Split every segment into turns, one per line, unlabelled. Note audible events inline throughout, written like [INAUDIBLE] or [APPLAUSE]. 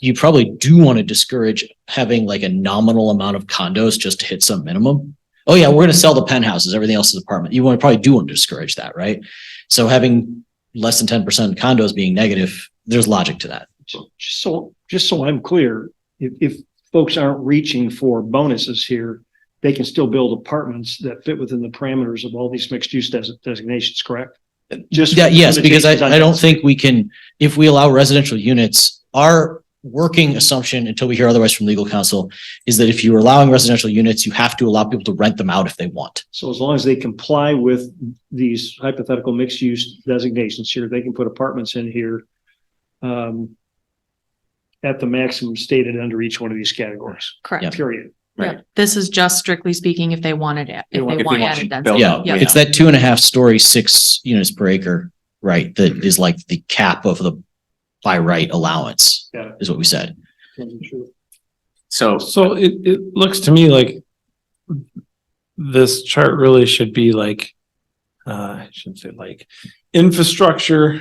you probably do want to discourage having like a nominal amount of condos just to hit some minimum. Oh yeah, we're going to sell the penthouses, everything else is apartment. You want to probably do want to discourage that, right? So having less than ten percent condos being negative, there's logic to that.
So- Just so, just so I'm clear, if, if folks aren't reaching for bonuses here, they can still build apartments that fit within the parameters of all these mixed use designations, correct? Just.
Yeah, yes, because I,
limitations on
I don't
density.
think we can, if we allow residential units, our working assumption until we hear otherwise from legal counsel is that if you're allowing residential units, you have to allow people to rent them out if they want.
So as long as they comply with these hypothetical mixed use designations here, they can put apartments in here. Um. At the maximum stated under each one of these categories,
Correct.
period.
Yeah. This is just strictly speaking if they wanted it, if
want-
they
if they
want
want
added
to
density.
build
Yeah,
Yeah.
it's that two and a half story, six units per acre, right? That is like the cap of the by right allowance,
Yeah.
is what we said.
So
So it, it looks to me like this chart really should be like, uh, I shouldn't say like, infrastructure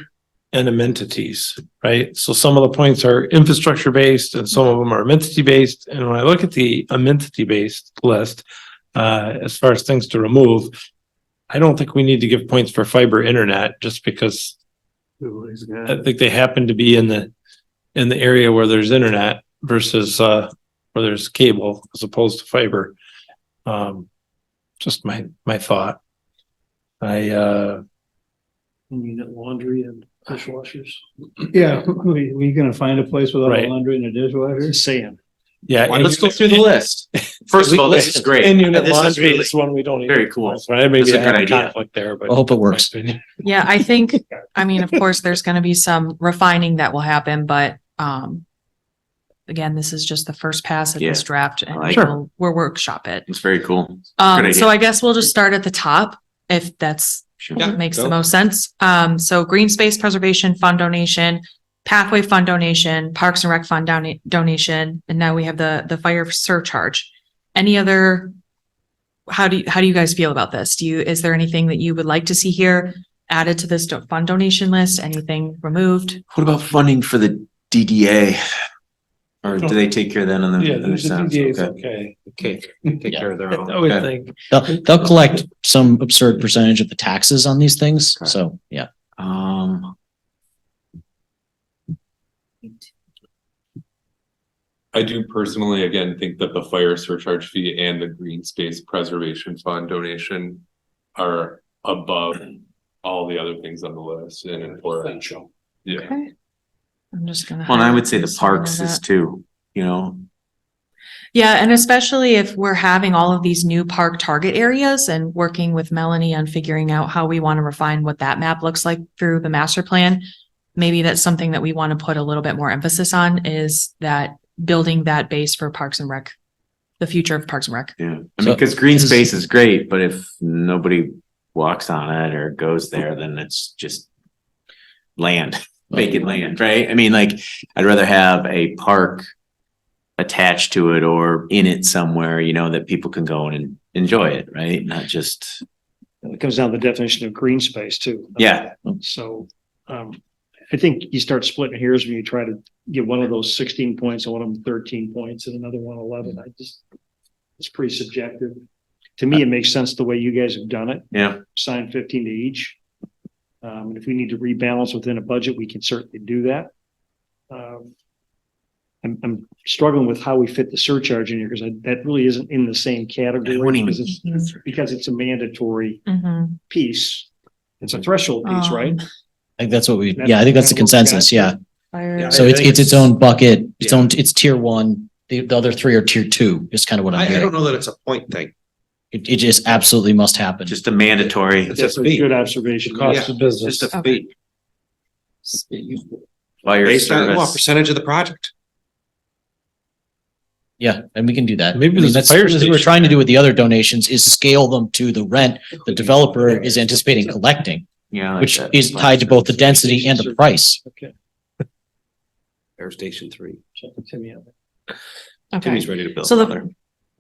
and amenities, right? So some of the points are infrastructure based and some of them are amenity based. And when I look at the amenity based list, uh, as far as things to remove, I don't think we need to give points for fiber internet just because I think they happen to be in the, in the area where there's internet versus, uh, where there's cable as opposed to fiber. Um, just my, my thought. I, uh,
Unit laundry and dishwashers.
Yeah, we, we gonna find a place without
Right.
a laundry and a dishwasher?
Just saying.
yeah.
well, let's go through the [LAUGHS] list. First of all, this is great.
In unit
This is
laundry
really-
is one we don't. even-
very cool.
So I maybe
That's a
I have
good
a
idea.
conflict there,
Oh,
but.
I hope it works.
Yeah, I think, I mean, [LAUGHS] of course, there's gonna be some refining that will happen, but, um, again, this is just the first pass of this
Yeah,
draft
I
and
like it.
we'll, we'll workshop it.
It's very cool.
Um,
Good
so
idea.
I guess we'll just start at the top if that's
Sure.
what makes the most sense. Um, so green space preservation fund donation, pathway fund donation, parks and rec fund doni- donation, and now we have the, the fire surcharge. Any other? How do you, how do you guys feel about this? Do you, is there anything that you would like to see here added to this do- fund donation list? Anything removed?
What about funding for the DDA? Or do they take care of that on Oh. the
Yeah, the
other side?
DDA is
Okay.
okay.
Okay, take care of their own.
I would
Okay.
think.
They'll, they'll collect some absurd percentage of the taxes on these things.
Correct.
So, yeah.
Um,
I do personally, again, think that the fire surcharge fee and the green space preservation fund donation are above all the other things on the list and important. Yeah.
Okay. I'm just gonna.
well, and I would say the
highlight
parks
some of
is
that.
too, you know,
Yeah, and especially if we're having all of these new park target areas and working with Melanie on figuring out how we want to refine what that map looks like through the master plan. Maybe that's something that we want to put a little bit more emphasis on is that building that base for Parks and Rec. The future of Parks and Rec.
yeah. I
So-
mean, because green space is great, but if nobody walks on it or goes there, then it's just land, [LAUGHS] vacant land, right? I mean, like, I'd rather have a park attached to it or in it somewhere, you know, that people can go and enjoy it, right? Not just,
It comes down to the definition of green space too.
yeah,
So, um, I think you start splitting hairs when you try to give one of those sixteen points and one of them thirteen points and another one eleven. I just, it's pretty subjective. To me, it makes sense the way you guys have done it,
yeah,
assign fifteen to each. Um, and if we need to rebalance within a budget, we can certainly do that. Um, I'm, I'm struggling with how we fit the surcharge in here because that really isn't in the same category.
I wouldn't even-
because it's- Because it's a mandatory
Mhm.
piece. It's a threshold piece,
Um,
right?
I think that's what we, yeah, I think that's the consensus. Yeah.
Fire-
So it's, it's its own bucket, its
Yeah.
own, it's tier one. The, the other three are tier two is kind of what I'm
I, I don't
hearing.
know that it's a point thing.
It, it just absolutely must happen.
just a mandatory.
It's
That's
a
a
fee.
good
The
observation.
cost of
It's
business.
just a
Okay.
fee.
Fire
Based on what
service.
percentage of the project?
Yeah, and we can do that. I
Maybe
mean,
there's a
that's
fire
that's what we're
station
trying to do with the other donations is scale them to the rent the developer is anticipating collecting,
Yeah. I like
which
that.
is tied to both the density and the price.
Okay.
Air Station Three.
Check with Timmy on that.
Okay,
Timmy's ready to build.
So the-
another.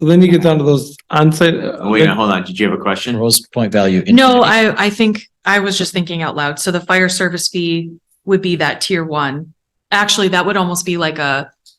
Then you get down to those onsite. uh,
Oh, Wait, now, hold on. Did you have a question?
Proposed point value. in-
no, I, I think I was just thinking out loud. So the fire service fee would be that tier one. Actually, that would almost be like a